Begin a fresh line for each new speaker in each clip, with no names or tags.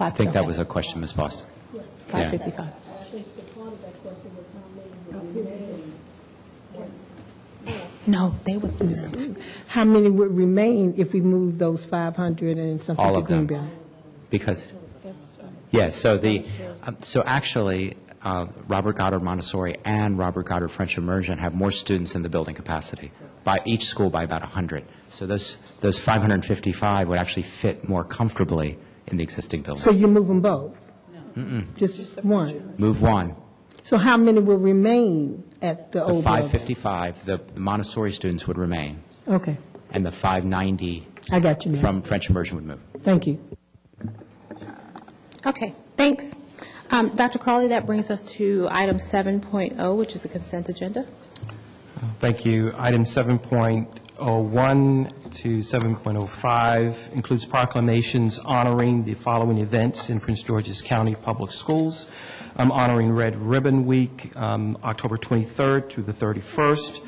I
I think that was a question, Ms. Foster. yeah.
555. No, they would,
How many would remain if we move those 500 and something
All
to
of them.
Greenbelt?
Because, yeah, so the, um, so actually, uh, Robert Goddard Montessori and Robert Goddard French Immersion have more students than the building capacity, by each school by about 100. So those, those 555 would actually fit more comfortably in the existing
So
building.
you move them both? No. Just one?
Move one,
So how many will remain at the
the
old building?
555, the the Montessori students would remain,
Okay,
and the 590
I got you, ma'am.
from French Immersion would move.
Thank you.
okay, thanks. Um, Dr. Crawley, that brings us to item 7.0, which is a consent agenda.
Thank you. Item 7.01 to 7.05 includes proclamations honoring the following events in Prince George's County Public Schools. Um, Honoring Red Ribbon Week, um, October 23rd through the 31st.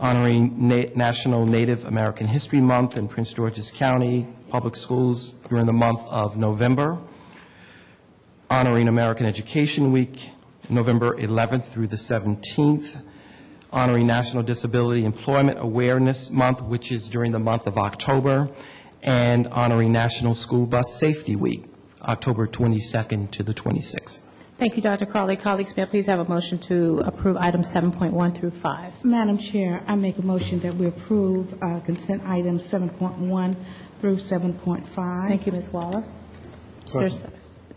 Honoring Na- National Native American History Month in Prince George's County Public Schools during the month of November honoring American Education Week, November 11th through the 17th, honoring National Disability Employment Awareness Month, which is during the month of October, and honoring National School Bus Safety Week, October 22nd to the 26th.
Thank you, Dr. Crawley. Colleagues, may I please have a motion to approve item 7.1 through 5?
Madam Chair, I make a motion that we approve uh, consent items 7.1 through 7.5.
Thank you, Ms. Waller. Is there s-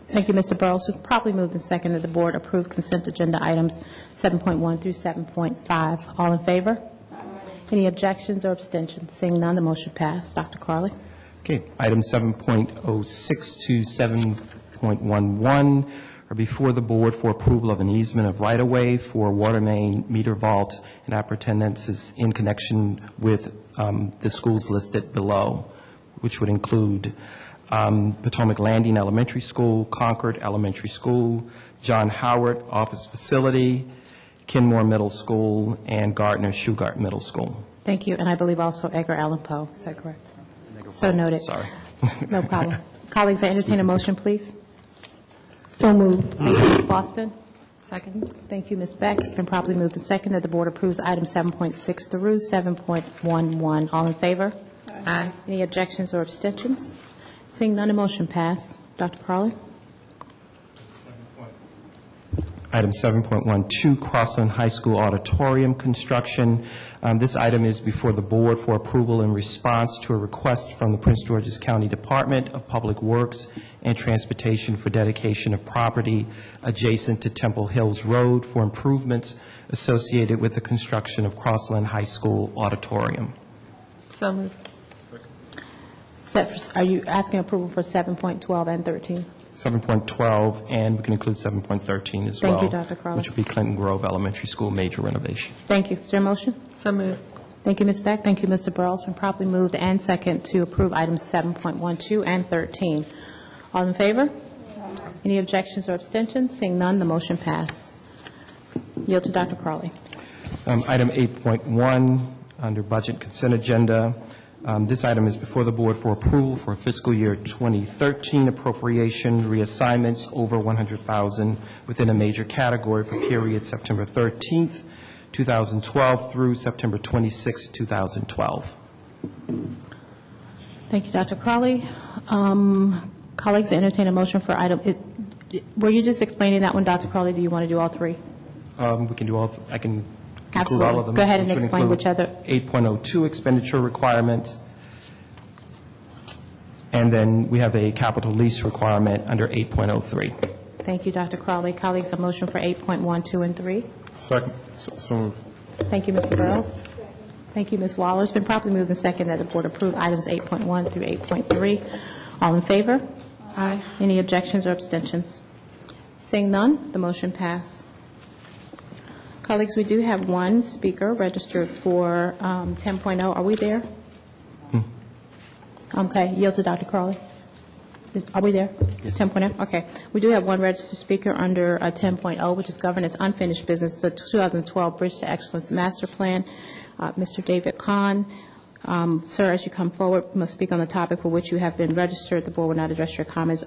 Thank you, Mr. Burrows. We've probably moved and second that the board approve consent agenda items 7.1 through 7.5. All in favor? Any objections or abstentions? Seeing none, the motion passed. Dr. Carly?
Okay, item 7.06 to 7.11 are before the board for approval of an easement of right-of-way for water main meter vault and appurtenances in connection with um, the schools listed below, which would include um, Potomac Landing Elementary School, Concord Elementary School, John Howard Office Facility, Kenmore Middle School, and Gardner Shugart Middle School.
Thank you, and I believe also Edgar Allan Poe. Is that correct? So noted.
Sorry.
No problem. Colleagues, I entertain a motion, please. So moved. Thank you, Ms. Boston. Second. Thank you, Ms. Beck. It's been properly moved and second that the board approves item 7.6 through 7.11. All in favor? Aye. Any objections or abstentions? Seeing none, a motion pass. Dr. Carly?
Item 7.12, Crossland High School Auditorium Construction. Um, This item is before the board for approval in response to a request from the Prince George's County Department of Public Works and Transportation for dedication of property adjacent to Temple Hills Road for improvements associated with the construction of Crossland High School Auditorium.
So moved. Set for, are you asking approval for 7.12 and 13?
7.12, and we can include 7.13 as
Thank
well.
you, Dr. Crowley.
Which would be Clinton Grove Elementary School major renovation.
Thank you. Is there a motion? So moved. Thank you, Ms. Beck. Thank you, Mr. Burrows. Been properly moved and second to approve items 7.12 and 13. All in favor? Any objections or abstentions? Seeing none, the motion pass. Yield to Dr. Crawley.
Um, Item 8.1, under Budget Consent Agenda. Um, This item is before the Board for approval for fiscal year 2013 appropriation reassignments over 100000 within a major category for period September 13th, 2012 through September 26th, 2012.
Thank you, Dr. Crawley. Um, Colleagues, I entertain a motion for item, it- were you just explaining that one, Dr. Crawley? Do you want to do all three?
Um, We can do all, I can include all
Absolutely.
of them.
Go ahead and
which would
explain
include
which other-
8.02 expenditure requirements, and then we have a capital lease requirement under 8.03.
Thank you, Dr. Crawley. Colleagues, a motion for 8.12 and 3.
Second, so so moved.
Thank you, Mr. Burrows. Thank you, Ms. Waller. It's been properly moved and second that the board approve items 8.1 through 8.3. All in favor? Aye. Any objections or abstentions? Seeing none, the motion pass. Colleagues, we do have one speaker registered for um, 10.0. Are we there? Okay, yield to Dr. Crowley. Is- Are we there? 10.0, okay. We do have one registered speaker under uh, 10.0, which is governance unfinished business, the 2012 Bridge to Excellence Master Plan. Uh, Mr. David Kahn, um, sir, as you come forward, must speak on the topic for which you have been registered. The board will not address your comments